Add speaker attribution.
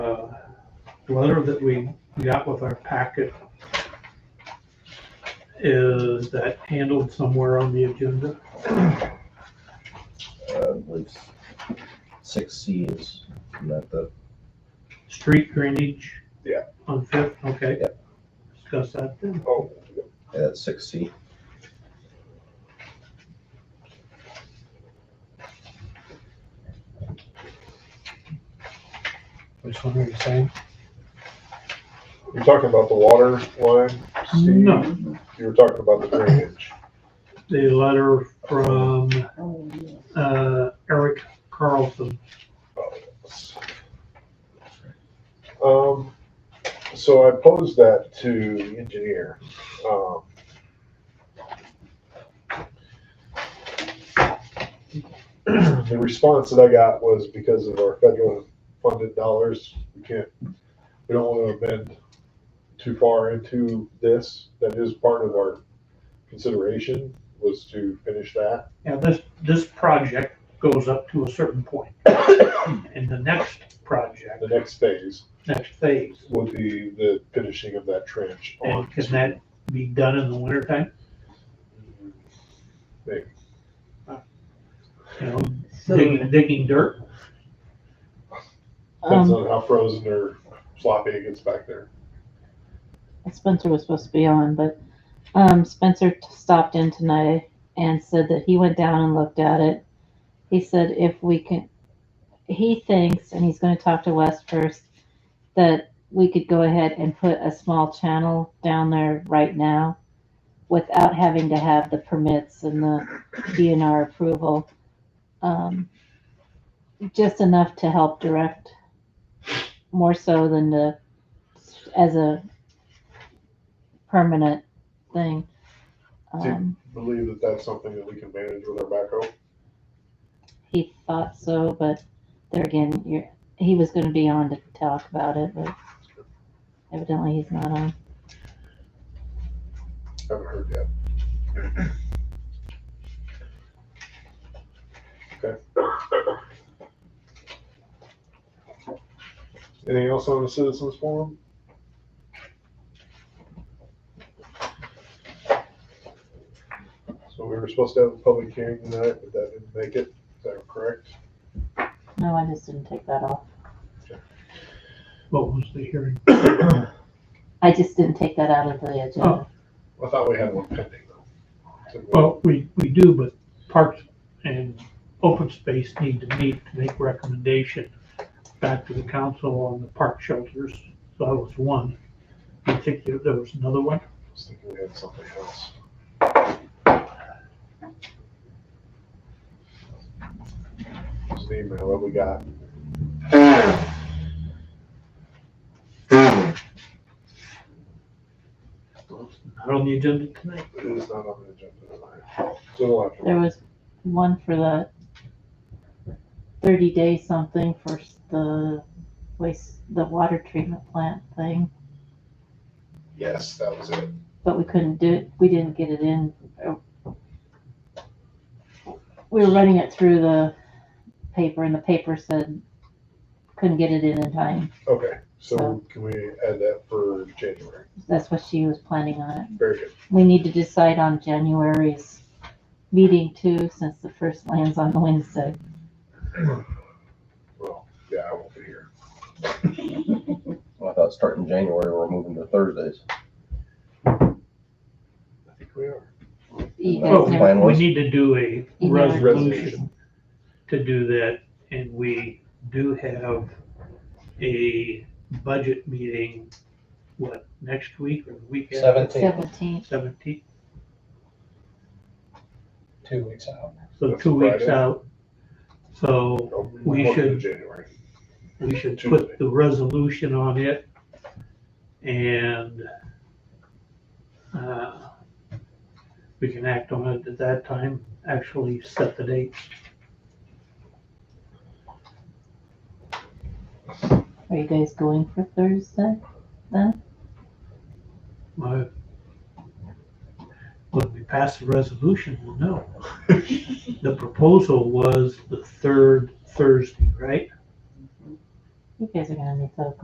Speaker 1: uh, letter that we got with our packet is that handled somewhere on the agenda?
Speaker 2: Uh, I believe six C is not the,
Speaker 1: Street drainage?
Speaker 3: Yeah.
Speaker 1: On Fifth, okay.
Speaker 2: Yeah.
Speaker 1: Discuss that then.
Speaker 3: Oh,
Speaker 2: uh, six C.
Speaker 4: Which one are you saying?
Speaker 3: you're talking about the water line, Steve?
Speaker 1: No,
Speaker 3: You were talking about the drainage.
Speaker 1: the letter from
Speaker 5: Oh, yeah.
Speaker 1: uh, Eric Carlson.
Speaker 3: Um, so I posed that to the engineer. Um, The response that I got was because of our federal funded dollars, we can't, we don't want to bend too far into this. That is part of our consideration was to finish that.
Speaker 1: Now, this, this project goes up to a certain point. And the next project,
Speaker 3: The next phase
Speaker 1: next phase,
Speaker 3: would be the finishing of that trench on.
Speaker 1: and can that be done in the wintertime?
Speaker 3: Maybe.
Speaker 1: You know,
Speaker 5: So,
Speaker 1: digging, digging dirt?
Speaker 3: Depends
Speaker 5: um,
Speaker 3: on how frozen or sloppy it gets back there.
Speaker 5: Spencer was supposed to be on, but, um, Spencer t- stopped in tonight and said that he went down and looked at it. He said if we can, he thinks, and he's gonna talk to Wes first, that we could go ahead and put a small channel down there right now without having to have the permits and the DNR approval. Um, just enough to help direct, more so than to, as a permanent thing.
Speaker 3: Do-
Speaker 5: Um,
Speaker 3: Believe that that's something that we can manage with our backhoe.
Speaker 5: he thought so, but there again, you're, he was gonna be on to talk about it, but evidently he's not on.
Speaker 3: Haven't heard yet. Okay. Anything else on the citizens forum? So we were supposed to have a public hearing tonight, but that didn't make it. Is that correct?
Speaker 5: No, I just didn't take that off.
Speaker 1: What was the hearing?
Speaker 5: I just didn't take that out of the agenda.
Speaker 3: I thought we had one pending though. Didn't we?
Speaker 1: Well, we, we do, but parks and open space need to meet to make recommendation back to the council on the park shelters. So that was one. I think there there was another one.
Speaker 3: I was thinking we had something else. There's an email that we got.
Speaker 1: Not on the agenda tonight.
Speaker 3: It is not on the agenda tonight. So we'll have to-
Speaker 5: There was one for the thirty day something for s- the waste, the water treatment plant thing,
Speaker 3: Yes, that was it.
Speaker 5: but we couldn't do it, we didn't get it in. We were running it through the paper and the paper said couldn't get it in in time.
Speaker 3: Okay, so can we add that for January?
Speaker 5: That's what she was planning on it.
Speaker 3: Very good.
Speaker 5: We need to decide on January's meeting too, since the first lands on Wednesday.
Speaker 3: Well, yeah, I won't be here.
Speaker 2: Well, I thought starting January, we're moving to Thursdays.
Speaker 3: I think we are.
Speaker 5: You
Speaker 2: Oh,
Speaker 5: guys never-
Speaker 2: plan
Speaker 1: Well, we
Speaker 2: was?
Speaker 1: need to do a
Speaker 5: You know-
Speaker 1: resolution to do that. And we do have a budget meeting, what, next week or the week after?
Speaker 4: Seventeen,
Speaker 5: Seventeenth,
Speaker 1: Seventeenth,
Speaker 4: two weeks out.
Speaker 1: so
Speaker 3: That's
Speaker 1: two weeks
Speaker 3: Friday.
Speaker 1: out. So
Speaker 3: Oh,
Speaker 1: We
Speaker 3: welcome
Speaker 1: should-
Speaker 3: to January.
Speaker 1: we should
Speaker 3: Tuesday.
Speaker 1: put the resolution on it and uh, we can act on it at that time, actually set the date.
Speaker 5: are you guys going for Thursday?
Speaker 1: My- When we pass the resolution, we'll know. The proposal was the third Thursday, right?
Speaker 5: You guys are gonna need to